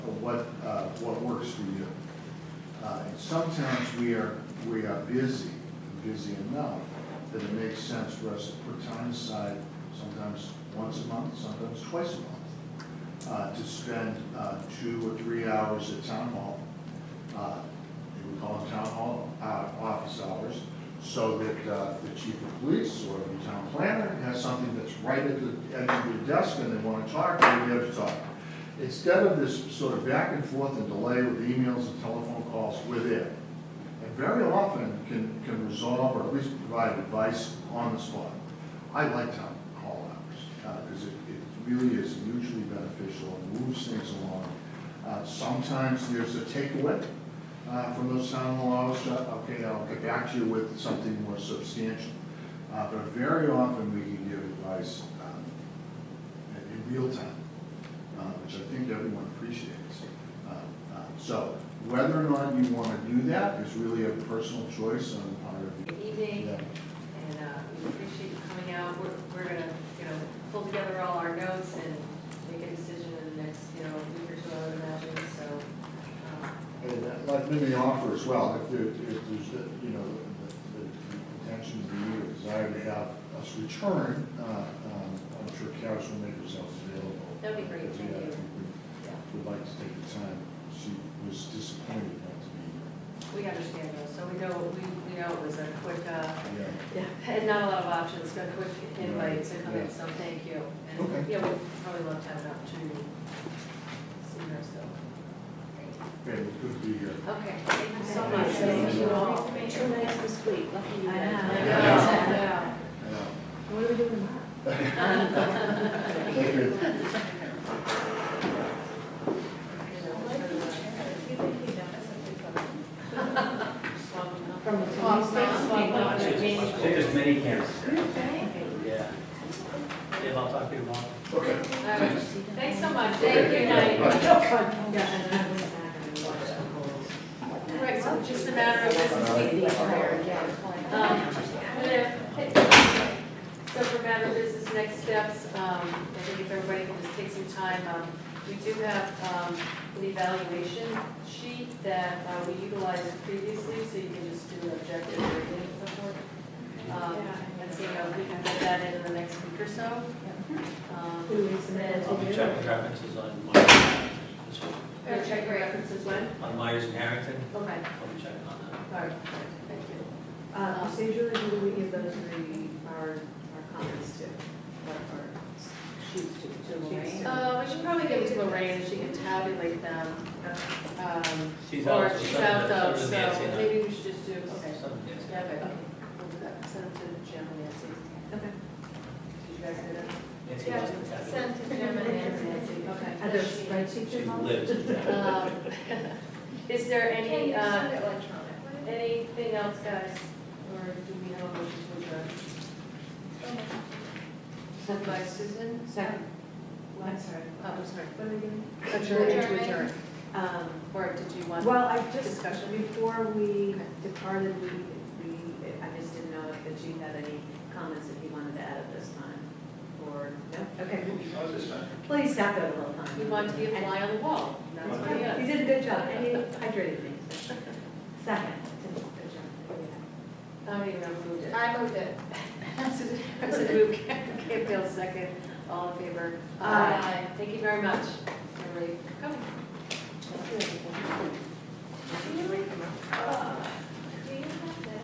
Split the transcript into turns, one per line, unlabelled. what works for you. Uh, and sometimes we are, we are busy, busy enough that it makes sense for us to put time aside, sometimes once a month, sometimes twice a month, uh, to spend, uh, two or three hours at town hall. Uh, we call them town hall, uh, office hours, so that, uh, the chief of police or the town planner has something that's right at the, at your desk and they wanna talk, and we have to talk. Instead of this sort of back and forth and delay with emails and telephone calls, we're there. And very often can, can resolve or at least provide advice on the spot. I like town hall hours, because it, it really is mutually beneficial and moves things along. Uh, Sometimes there's a takeaway uh, from those town hall hours, uh, okay, I'll get back to you with something more substantial. Uh, But very often we can give advice um, in in real time uh, which I think everyone appreciates. Uh, uh, So whether or not you want to do that is really a personal choice on the part of you.
Good evening,
Yeah.
and uh, we appreciate you coming out. We're, we're gonna, you know, pull together all our notes and make a decision in the next, you know, week or two, I would imagine, so. um,
And that- let let me offer as well, if there, if there's, uh, you know, the- the the intention of you, or desire to have us return, uh, um, I'm sure Karis will make herself available.
That'd be great,
If we
thank
have-
you.
if
Yeah,
we Would like to take the time. She was disappointed not to be
we understand those, so we know, we, we know it was a quick, uh,
here. Yeah.
yeah, and not a lot of options, but a quick invite to come
Yeah.
in, so thank you. And,
Okay.
yeah, we'd probably love to have an opportunity sooner, so. Great.
Okay, well, good to be here.
Okay, thank you so much.
Thank you all.
Thank you.
Two nights this week, lucky you
I
guys.
know, I know.
Yeah.
What are we doing
Thank you.
From the
Swamp
swamp,
swamp.
swamp,
I think there's many camps. Yeah. Yeah, I'll talk to you tomorrow.
Okay.
Thanks so much,
Thank you.
Right, so just a matter of business meeting. Um, So for matter of business, next steps, um, I think if everybody can just take some time, um, we do have, um, an evaluation sheet that uh, we utilized previously, so you can just do an objective rating and so forth. Um, and see if we can get that in in the next week or so. Um,
I'll be checking references on Myers, this one,
Gotta check your references when?
on Myers and Harrington,
Okay,
I'll be checking on that.
all right, thank you.
Uh, procedurally, who do we give those three, our, our comments to, or our sheets to, to Lorraine?
Uh, we should probably give it to Lorraine, she can tabulate them. Um,
She's
or
out, so
she's
send
out
it-
though,
send it to Nancy
so
and I.
maybe we should just do, okay.
Send it to Nancy.
Yeah, okay, okay, we'll do that, send it to Jim and Nancy.
Okay.
Did you guys get it?
Nancy does the tabulation.
Send to Jim and Nancy.
Are
Okay.
there spreadsheets
She
involved?
lives in town.
Um, Is there
Can
any,
you send
uh,
it electronically?
anything else, guys, or do we have a motion to adjourn? Sent by Susan?
Second.
What?
I'm sorry.
Oh, I'm sorry.
What are we doing?
Adjourn
Adjournment.
to adjourn.
Um,
Or did you want?
Well, I just,
Discussion.
before we
Okay.
departed, we, we, I just didn't know if that you had any comments that you wanted to add at this time, or, no? Okay. Well, you stopped out a little time.
You want to be a
And-
fly on the wall, that's what he
You
is.
did a good job, and you hydrated me. so. Second, good job.
I don't even know who moved it.
I moved it.
Susan moved, Kate Bell's second, all in favor.
Aye.
Thank you very much, everybody, for coming.